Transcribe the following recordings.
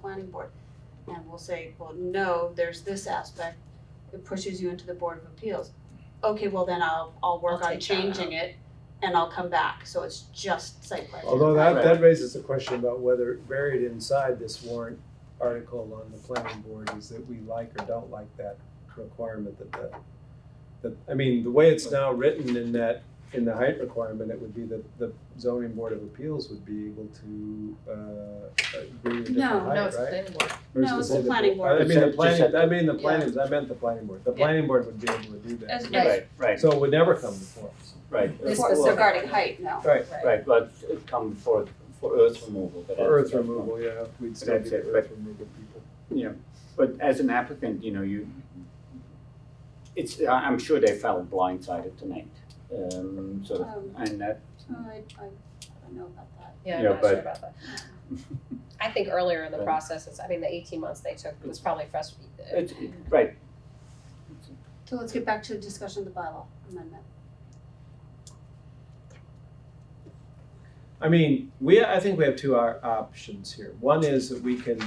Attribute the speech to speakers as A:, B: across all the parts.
A: planning board. And we'll say, well, no, there's this aspect, it pushes you into the board of appeals. Okay, well then I'll, I'll work
B: I'll
A: on
B: take that
A: changing it and I'll come back, so it's just site plan.
C: Although that, that raises the question about whether buried inside this warrant article on the planning board is that we like or don't like that requirement that the, that, I mean, the way it's now written in that, in the height requirement, it would be that the zoning board of appeals would be able to, uh, agree with
A: No,
C: different height, right?
B: No, it's
A: No, it's
B: the planning board.
C: Versus say
A: the planning board.
C: I mean, the
D: Just said-
C: planning, I mean, the planning, I meant the planning board, the planning board would be able to do
B: As-
C: that.
B: as-
D: Right, right,
C: So it would never come before us.
D: right.
B: This
D: Well,
B: was
A: Before- Regarding height, no.
C: Right,
D: Right, well, it's come for, for earth removal, but. that's-
C: earth
D: that's not-
C: removal, yeah, we'd
D: still
C: still be
D: That's be it, but-
C: earth
D: earth
C: removal people.
D: Yeah, but as an applicant, you know, you, it's, I- I'm sure they felt blindsided tonight. Um, sort of,
A: Um,
D: and that,
A: Oh, I, I I don't know about that.
B: Yeah, I'm
D: Yeah,
B: not sure
D: but-
B: about that. I think earlier in the
D: Yeah.
B: process, it's, I mean, the eighteen months they took was probably frustrating.
D: it's, right.
A: So let's get back to the discussion of the bylaw amendment.
C: I mean, we, I think we have two our options here. One is that we can,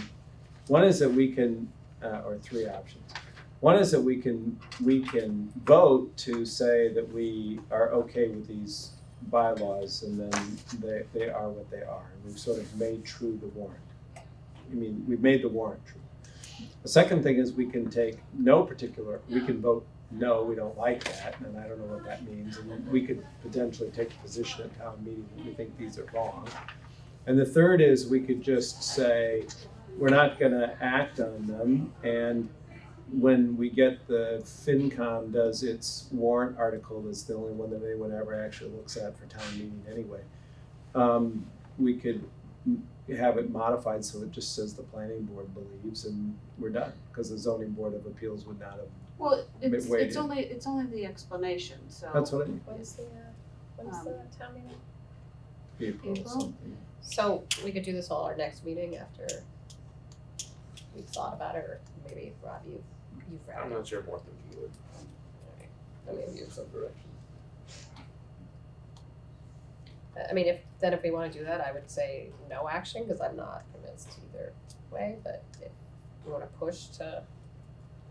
C: one is that we can, uh, or three options. One is that we can, we can vote to say that we are okay with these bylaws and then they, they are what they are. We've sort of made true the warrant. I mean, we've made the warrant true. The second thing is we can take no particular, we can vote, no, we don't like that, and I don't know what that means. And then we could potentially take a position at town meeting that we think these are wrong. And the third is we could just say, we're not gonna act on them. And when we get the FinCom does its warrant article, that's the only one that anyone ever actually looks at for town meeting anyway. Um, we could have it modified so it just says the planning board believes and we're done. Because the zoning board of appeals would not have,
A: Well, it's,
C: Wait,
A: it's
C: wait.
A: only, it's only the explanation, so.
C: that's what I mean.
B: What is the, uh, what is
A: Um,
B: the town meeting?
C: April
A: April?
C: something.
B: So we could do this all our next meeting after we've thought about it, or maybe Rob, you, you've read it.
E: I'm not sure more than you would.
B: Alright. I mean, you-
E: some direction.
B: I mean, if, then if we wanna do that, I would say no action, cause I'm not convinced either way, but if you wanna push to,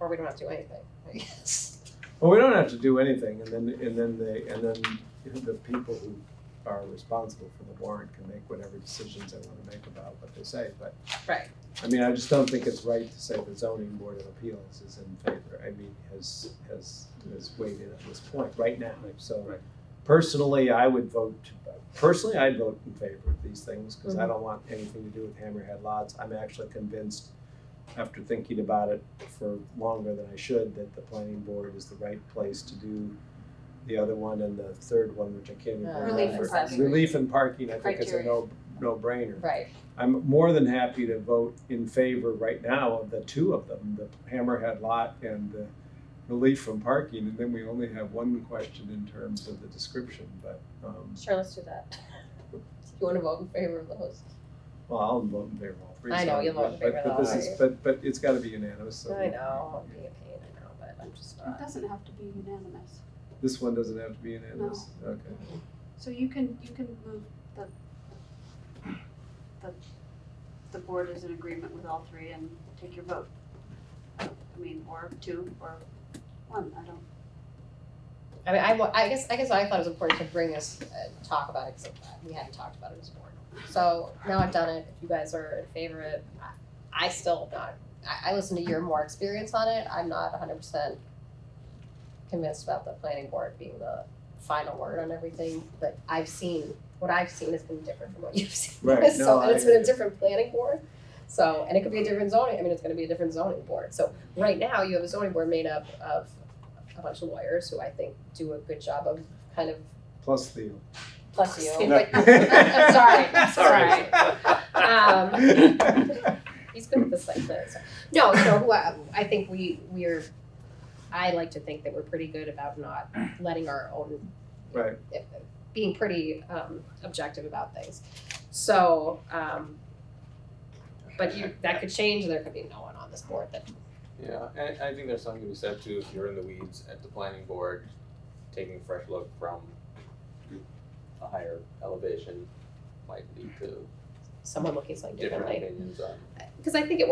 B: or we don't have to do anything, I guess.
C: Well, we don't have to do anything, and then, and then they, and then you know, the people who are responsible for the warrant can make whatever decisions they wanna make about what they say, but.
B: Right.
C: I mean, I just don't think it's right to say the zoning board of appeals is in favor, I mean, has, has, has weighed in at this point, right now, so.
D: Right.
C: Personally, I would vote, personally, I'd vote in favor of these things, cause
A: Mm-hmm.
C: I don't want anything to do with hammerhead lots, I'm actually convinced after thinking about it for longer than I should, that the planning board is the right place to do the other one and the third one, which I can't remember.
A: Uh, Relief and
C: Relief
A: parking.
C: Relief and parking, I think is a
A: Criteria.
C: no, no-brainer.
B: Right,
C: I'm more than happy to vote in favor right now of the two of them, the Hammerhead Lot and the relief from parking, and then we only have one question in terms of the description, but, um,
B: sure, let's do that. You wanna vote in favor of those?
C: well, I'll vote in favor of all three.
B: I know,
C: so-
B: you'll vote in
C: but-
B: favor of
C: But
B: all
C: this is,
B: three.
C: but, but it's gotta be unanimous, so.
B: I know, it'd be a pain, I know, but I'm just
A: It
B: not.
A: doesn't have to be unanimous.
C: This one doesn't have to be unanimous? Okay.
A: So you can, you can move the, the, the board is in agreement with all three and take your vote. I mean, or two, or one, I don't,
B: I mean, I, wa- I guess, I guess I thought it was important to bring this, uh, talk about it, cause we hadn't talked about it as a board. So now I've done it, if you guys are in favor of it, I, I still not, I, I listened to your more experience on it, I'm not hundred percent convinced about the planning board being the final word on everything, but I've seen, what I've seen has been different from what you've seen.
C: Right,
B: So,
C: no,
B: and it's
C: I-
B: been a different planning board, so, and it could be a different zoning, I mean, it's gonna be a different zoning board, so right now, you have a zoning board made up of a bunch of lawyers who I think do a good job of kind of,
C: Plus Theo.
B: plus you,
A: No.
B: but- I'm sorry, I'm sorry.
E: Sorry.
B: Um, he's good at this like this. No, so who I, I think we, we're, I like to think that we're pretty good about not letting our own.
C: Right.
B: Being pretty, um, objective about things. So, um, but you, that could change, and there could be no one on this board that
E: Yeah, and I think there's something to be said too, if you're in the weeds at the planning board, taking a fresh look from a higher elevation might lead to
B: someone looking slightly
E: different
B: differently.
E: opinions on
B: Cause I think it